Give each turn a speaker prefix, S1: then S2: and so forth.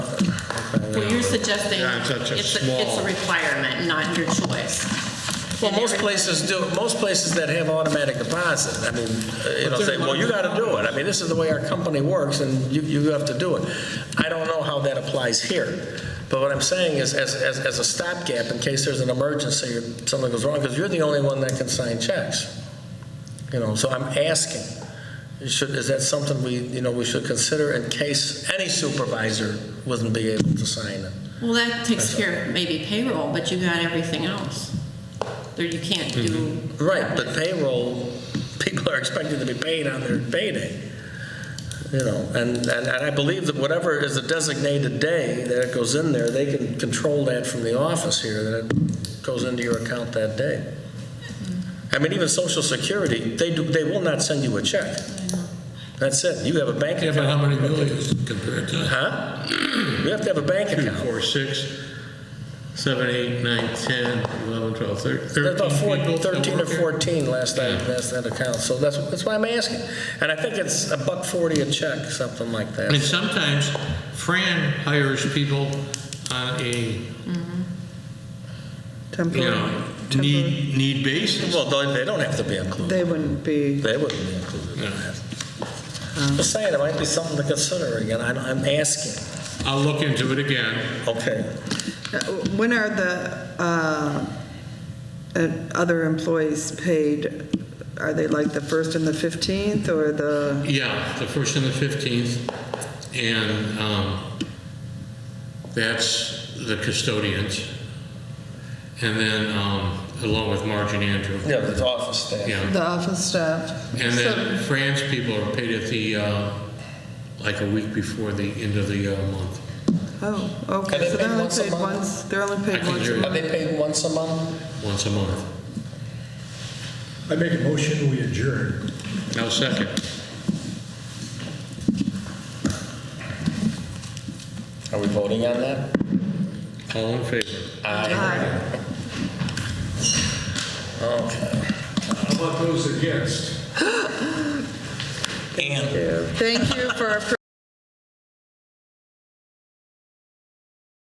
S1: Well, you're suggesting
S2: Yeah, it's such a
S1: it's a, it's a
S2: small-
S1: requirement, not your choice.
S3: Well, most places do, most places that have automatic deposit, I mean, uh, you know, say, well, you gotta do it. I mean, this is the way our company works, and you, you have to do it. I don't know how that applies here, but what I'm saying is, as, as, as a stopgap, in case there's an emergency or something goes wrong, because you're the only one that can sign checks. You know, so I'm asking, should, is that something we, you know, we should consider in case any supervisor wouldn't be able to sign it?
S1: Well, that takes care of maybe payroll, but you got everything else. There, you can't
S2: Mm-hmm.
S1: do.
S3: Right, but payroll, people are expected to be paid on their payday. You know, and, and, and I believe that whatever is the designated day that it goes in there, they can control that from the office here, that it goes into your account that day. I mean, even Social Security, they do, they will not send you a check. That's it, you have a bank
S4: Yeah, but
S3: account.
S4: how many millions compared to?
S3: Huh? You have to have a bank
S2: Two,
S3: account.
S2: four, six, seven, eight, nine, 10, 11, 12, thir- 13
S3: There's about four-
S2: people that
S3: 13 or
S2: work here?
S3: 14 last I,
S2: Yeah.
S3: last I account, so that's, that's why I'm asking. And I think it's a buck 40 a check, something like
S2: And
S3: that.
S2: sometimes Fran hires people on a, you know, need, need basis.
S3: Well, they they don't have to be included.
S5: They wouldn't be,
S3: They wouldn't be included in
S2: Yeah.
S3: that. Just saying, it might be something to consider again, I'm, I'm asking.
S2: I'll look into it again.
S3: Okay,
S5: uh, when are the uh, uh, other employees paid? Are they like the 1st and the 15th, or the,
S2: Yeah, the first and the 15th, and um, that's the custodians. And then um, along with Marge and Andrew.
S3: yeah, the office staff.
S2: Yeah.
S5: the office staff?
S2: And
S5: So-
S2: then France people are paid at the, uh, like a week before the end of the uh, month.
S5: Oh,
S3: Are they
S5: okay, so
S3: paid
S5: they're only
S3: once a
S5: paid
S3: month?
S5: once, they're only
S2: I
S5: paid
S2: can
S5: once
S2: hear
S5: a
S2: you.
S3: Are
S5: month.
S3: they paid once a month?
S2: once a month.
S6: I make a motion, we adjourn.
S2: I'll second.
S3: Are we voting on that?
S2: All in favor?
S5: Aye.
S6: How about those against?
S3: And
S5: Thank you for